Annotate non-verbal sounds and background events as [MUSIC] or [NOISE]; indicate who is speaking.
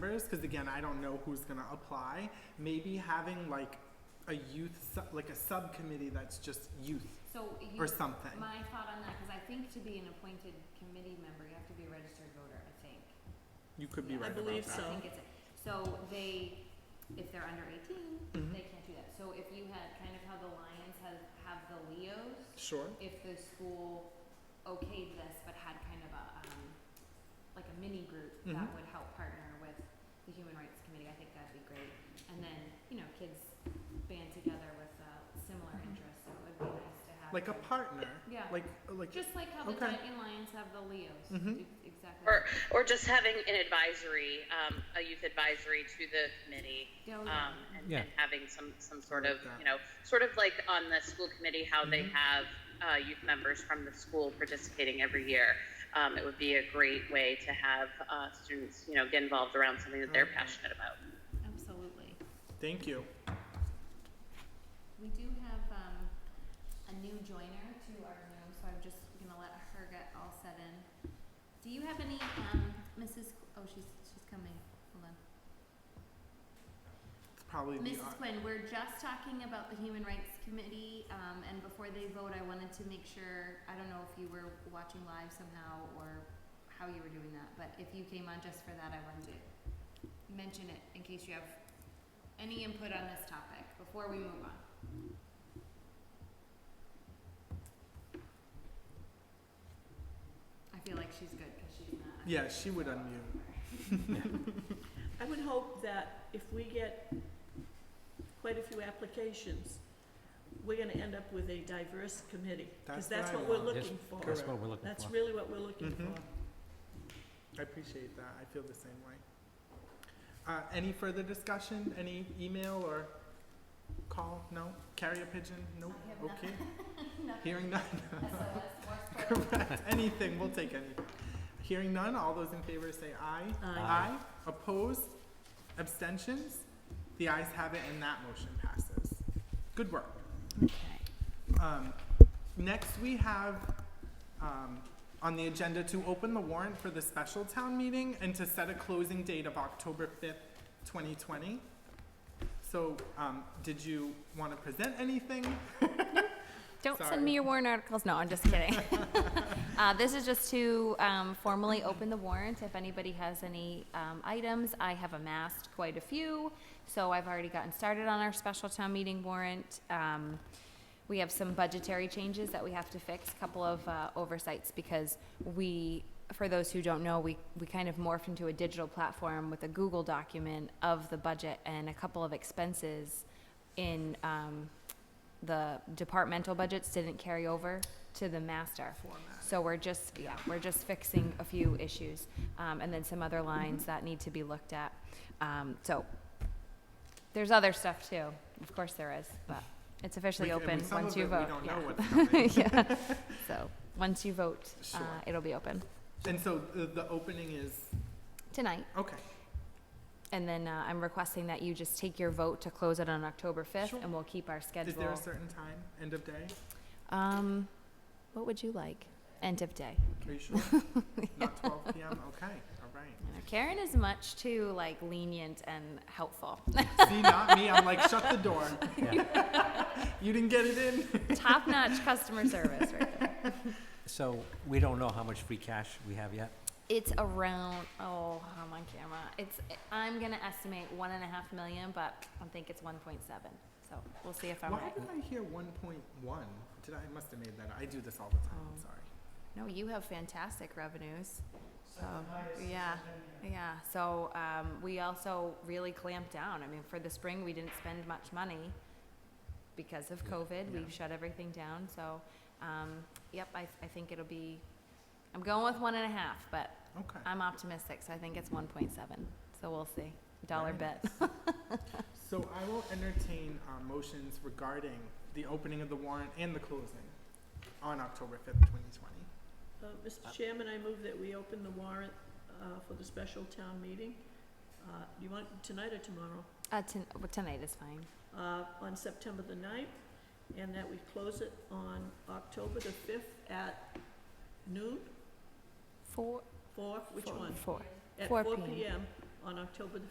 Speaker 1: years, because again, I don't know who's gonna apply, maybe having like a youth, su- like a subcommittee that's just youth
Speaker 2: So you,
Speaker 1: or something.
Speaker 2: my thought on that, because I think to be an appointed committee member, you have to be a registered voter, I think.
Speaker 1: You could be
Speaker 2: Yeah,
Speaker 1: right about that.
Speaker 3: believe
Speaker 2: I
Speaker 3: so.
Speaker 2: think it's, so they, if they're under eighteen,
Speaker 1: Mhm.
Speaker 2: they can't do that. So if you had, kind of how the Lions have, have the Leos,
Speaker 1: Sure,
Speaker 2: if the school okayed this but had kind of a, um, like a mini group that
Speaker 1: Mhm.
Speaker 2: would help partner with the Human Rights Committee, I think that'd be great. And then, you know, kids band together with, uh, similar interests, so it would be nice to have.
Speaker 1: Mm-hmm. like a
Speaker 2: them.
Speaker 1: partner,
Speaker 2: Yeah,
Speaker 1: like, like,
Speaker 2: just like how the
Speaker 1: Okay.
Speaker 2: Titan Lions have the Leos,
Speaker 1: Mhm.
Speaker 2: e- exactly.
Speaker 4: Or, or just having an advisory, um, a youth advisory to the committee,
Speaker 2: Yeah,
Speaker 1: Oh,
Speaker 4: um,
Speaker 2: yeah.
Speaker 4: and,
Speaker 5: Yeah.
Speaker 4: and having some, some sort of,
Speaker 1: that.
Speaker 4: you know, sort of like on the school committee, how they
Speaker 1: Mhm.
Speaker 4: have uh, youth members from the school participating every year. Um, it would be a great way to have uh, students, you know, get involved around something that they're
Speaker 1: Okay.
Speaker 4: passionate about.
Speaker 2: Absolutely.
Speaker 1: thank you.
Speaker 2: We do have um, a new joiner to our room, so I'm just gonna let her get all set in. Do you have any, um, Mrs. Qu- oh, she's she's coming. Hold on,
Speaker 1: It's probably the, uh,
Speaker 2: Mrs. Quinn. We're just talking about the Human Rights Committee, um, and before they vote, I wanted to make sure. I don't know if you were watching live somehow or how you were doing that, but if you came on just for that, I wanted to mention it in case you have any input on this topic before we move on. I feel like she's good because she's not.
Speaker 1: yeah,
Speaker 2: [LAUGHS]
Speaker 1: she would unmute.
Speaker 3: I would hope that if we get quite a few applications, we're gonna end up with a diverse committee,
Speaker 1: That's
Speaker 3: because
Speaker 1: what
Speaker 3: that's
Speaker 1: I
Speaker 3: what we're
Speaker 1: want.
Speaker 5: Yes,
Speaker 3: looking for.
Speaker 5: That's what we're looking
Speaker 3: That's
Speaker 5: for.
Speaker 3: really what we're looking
Speaker 1: Mhm.
Speaker 3: for.
Speaker 1: I appreciate that. I feel the same way. Uh, any further discussion? Any email or call? No? Carrier pigeon? Nope.
Speaker 2: I have
Speaker 1: Okay.
Speaker 2: Nothing. [LAUGHS]
Speaker 1: Hearing none.
Speaker 2: SOS, more
Speaker 1: [LAUGHS]
Speaker 2: support.
Speaker 1: Correct. Anything. We'll take anything. Hearing none. All those in favor say aye.
Speaker 3: Aye.
Speaker 1: Aye. Opposed? Abstentions? The ayes have it and that motion passes. Good work. Um, next, we have, um, on the agenda to open the warrant for the special town meeting and to set a closing date of October fifth, twenty twenty. So, um, did you wanna present anything?
Speaker 6: Don't
Speaker 1: Sorry.
Speaker 6: send me your warrant articles. No, I'm just kidding. [LAUGHS] uh, this is just to um, formally open the warrant. If anybody has any um, items, I have amassed quite a few. So I've already gotten started on our special town meeting warrant. Um, we have some budgetary changes that we have to fix, a couple of uh, oversights because we, for those who don't know, we, we kind of morphed into a digital platform with a Google document of the budget and a couple of expenses in um, the departmental budgets didn't carry over to the master. So we're just, yeah, we're just fixing a few issues, um, and then some other lines that need to be looked at. Um, so, there's other stuff too, of course there is, but it's officially
Speaker 1: We- and we-
Speaker 6: open
Speaker 1: some
Speaker 6: once
Speaker 1: of
Speaker 6: you
Speaker 1: it
Speaker 6: vote.
Speaker 1: We don't know
Speaker 6: yeah.
Speaker 1: what's coming.
Speaker 6: [LAUGHS] Yeah, [LAUGHS] so, once you vote, uh,
Speaker 1: Sure.
Speaker 6: it'll be open
Speaker 1: And so the, the opening is,
Speaker 6: tonight.
Speaker 1: okay,
Speaker 6: And then, uh, I'm requesting that you just take your vote to close it on October fifth,
Speaker 1: Sure.
Speaker 6: and we'll keep our schedule.
Speaker 1: is there a certain time, end of day?
Speaker 6: Um, what would you like? End of day.
Speaker 1: Are
Speaker 6: [LAUGHS]
Speaker 1: you sure? Not twelve PM? Okay, all right.
Speaker 6: Karen is much too like lenient and helpful.
Speaker 1: [LAUGHS] See, not me. I'm like, shut the door. You didn't get it in?
Speaker 6: [LAUGHS] Top-notch customer service right there.
Speaker 5: So we don't know how much free cash we have yet.
Speaker 6: It's around, oh, I'm on camera. It's, I'm gonna estimate one and a half million, but I think it's one point seven. So we'll see if I'm
Speaker 1: Why
Speaker 6: right.
Speaker 1: did I hear one point one? Did I, I must have made that, up. I do this all the time, I'm
Speaker 6: Oh.
Speaker 1: sorry.
Speaker 6: No, you have fantastic revenues. So, Oh. yeah, yeah. So, um, we also really clamped down. I mean, for the spring, we didn't spend much money because of COVID. We
Speaker 1: Yeah.
Speaker 6: shut everything down. So, um, yep, I, I think it'll be, I'm going with one and a half, but
Speaker 1: Okay,
Speaker 6: I'm optimistic. So I think it's 1.7. So we'll see. Dollar
Speaker 1: Very
Speaker 6: bet.
Speaker 1: so I will entertain, uh, motions regarding the opening of the warrant and the closing on October fifth, twenty twenty.
Speaker 3: Uh, Mr. Chairman, I move that we open the warrant, uh, for the special town meeting. Uh, you want tonight or tomorrow?
Speaker 6: Uh, ton- well, tonight is fine.
Speaker 3: uh, on September the 9th, and that we close it on October the 5th at noon,
Speaker 6: Four.
Speaker 3: four, which one?
Speaker 6: Four.
Speaker 3: At
Speaker 6: 4
Speaker 3: 4
Speaker 6: p.m.
Speaker 3: PM on October the